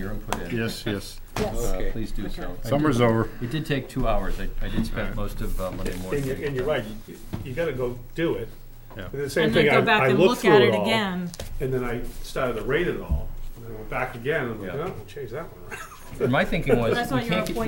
your input in. Yes, yes. Yes. Uh, Okay. Please do so. I Summer's did- over. It did take two hours. I, I did spend most of uh, Monday morning. And you're, and you're right, you, you gotta go do it. Yeah. And the same And then thing, I, go back I and looked look through at it all, again. And then I started to rate it all, and then I went back again, and I'm like, Yeah. oh, change that one around. And my thinking was, That's we why you're can't on get, we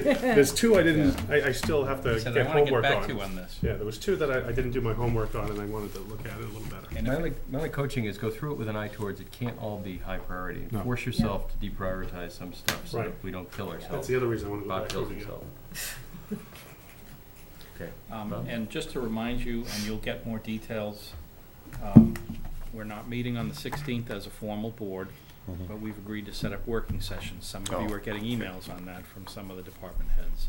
point nine? There's two I didn't, I, I still have to Said get I want to get homework back to you on. on this. Yeah, there was two that I, I didn't do my homework on, and I wanted to look at it a little better. My only, my only coaching is go through it with an eye towards it can't all be high priority. No. Force yourself to deprioritize some stuff so Right. that we don't kill That's ourselves. the other reason I wanna go Bob back to kills it again. himself. Okay. Um, Well- and just to remind you, and you'll get more details, um, we're not meeting on the sixteenth as a formal board, but we've agreed to set up working sessions. Some of you Oh, are getting emails on that from some of the department heads.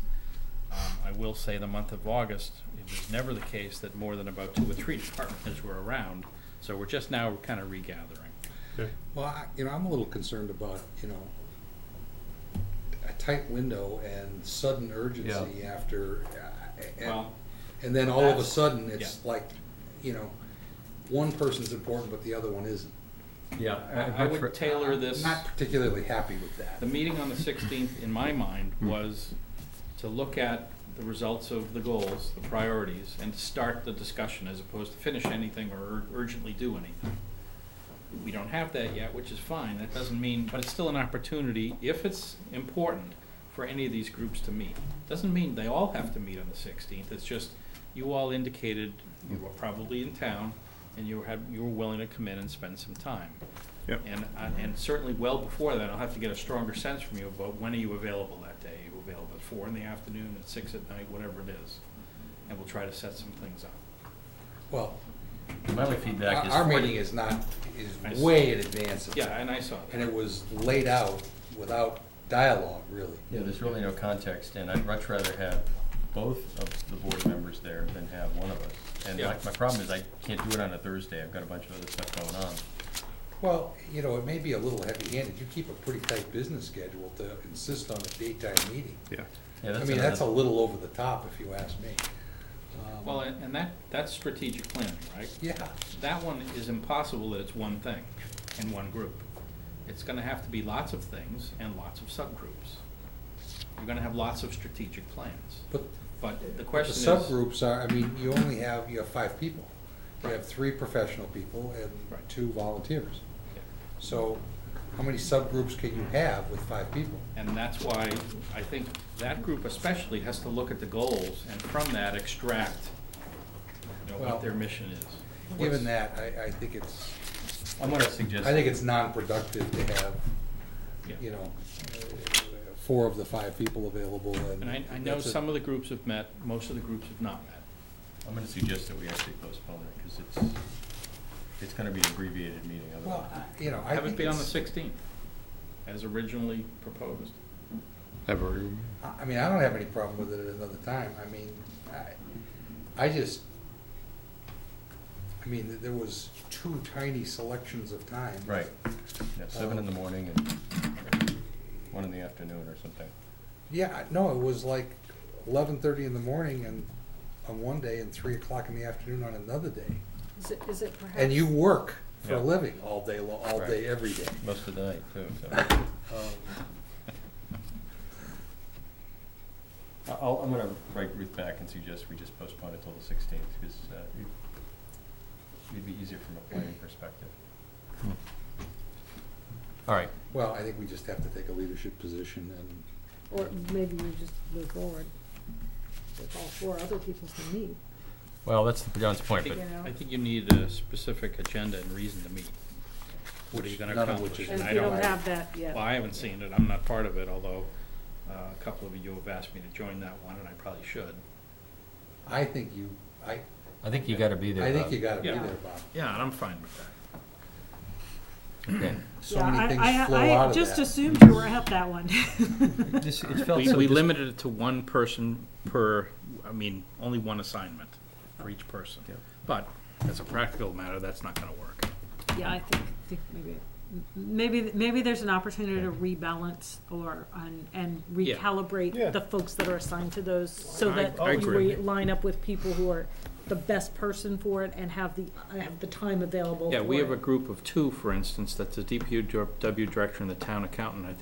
Um, I will say the month of August, it is never the case that more than about two or three department heads were around, so we're just now kind of regathering. Well, I, you know, I'm a little concerned about, you know, a tight window and sudden urgency after, uh, and, Well, and then all of a that's- sudden, it's like, you know, one person's important, but the other one isn't. Yeah. I I I'd would prefer- tailor I'm this. uh, not particularly happy with that. The meeting on the sixteenth, in my mind, was to look at the results of the goals, the priorities, and to start the discussion as opposed to finish anything or ur- urgently do anything. We don't have that yet, which is fine, that doesn't mean, but it's still an opportunity, if it's important, for any of these groups to meet. Doesn't mean they all have to meet on the sixteenth, it's just, you all indicated you were probably in town, and you had, you were willing to come in and spend some time. Yep. And, I- and certainly well before that, I'll have to get a stronger sense from you about when are you available that day? Are you available at four in the afternoon, at six at night, whatever it is? And we'll try to set some things up. Well, My only our feedback is. our for- meeting is not, I is see. way in advance of Yeah, that. and I saw And that. it was laid out without dialogue, really. Yeah, there's really no context, and I'd much rather have both of the board members there than have one of us. And my, Yeah. my problem is I can't do it on a Thursday, I've got a bunch of other stuff going on. Well, you know, it may be a little heavy-handed. You keep a pretty tight business schedule to insist on a daytime meeting. Yeah. Yeah, I that's mean, that's a another- little over the top, if you ask me. Um, Well, and and that, that's strategic planning, right? Yeah, That one is impossible that it's one thing in one group. It's gonna have to be lots of things and lots of subgroups. You're gonna have lots of strategic plans, but but the the question is. subgroups are, I mean, you only have, you have five people. You Right. have three professional people and Right. two volunteers. Yeah. So how many subgroups can you have with five people? And that's why I think that group especially has to look at the goals and from that extract, you know, Well, what their mission is. Given that, I, I think it's, I'm gonna suggest. I think it's non-productive to have, Yeah. you know, uh, four of the five people available and. And I, I know that's it. some of the groups have met, most of the groups have not met. I'm gonna suggest that we actually postpone it, because it's, it's gonna be an abbreviated meeting Well, otherwise. I- you know, I Have it think be on the it's, sixteenth, as originally proposed. Ever. I I mean, I don't have any problem with it at another time. I mean, I, I just, I mean, th- there was two tiny selections of time. Right, yeah, seven in the morning and one in the afternoon or something. Yeah, I- no, it was like eleven-thirty in the morning and, on one day and three o'clock in the afternoon on another day. Is it, is it perhaps? And you work for a Yeah. living all day, lo- all Right. day, every day. Most of the night, too, so. I- I'll, I'm gonna write Ruth back and suggest we just postpone it till the sixteenth, because, uh, it- it'd be easier from a planning perspective. All right, Well, I think we just have to take a leadership position and Or maybe you just move forward with all four other people can meet, well, that's John's point, you but, know? I think you need a specific agenda and reason to meet. What are you gonna None of which accomplish? is- And And I we don't don't, have that yet. well, I haven't seen it, I'm not part of it, although, uh, a couple of you have asked me to join that one, and I probably should. I think you, I, I think you gotta be there. I think you gotta be Yeah. there, Bob. Yeah, and I'm fine with that. So Yeah, I- many I- things flow I out of just that. assumed you were at that one. This, it felt We, so we dis- limited it to one person per, I mean, only one assignment for each person. Yep. But as a practical matter, that's not gonna work. Yeah, I think, think maybe, m- maybe, maybe there's an opportunity to rebalance or, and, and Yeah. recalibrate Yeah. the folks that are assigned to those so I- that I you agree. re- line up with people who are the best person for it and have the, have the time available for Yeah, we have it. a group of two, for instance, that's the DPW dir- W director and the town accountant, I think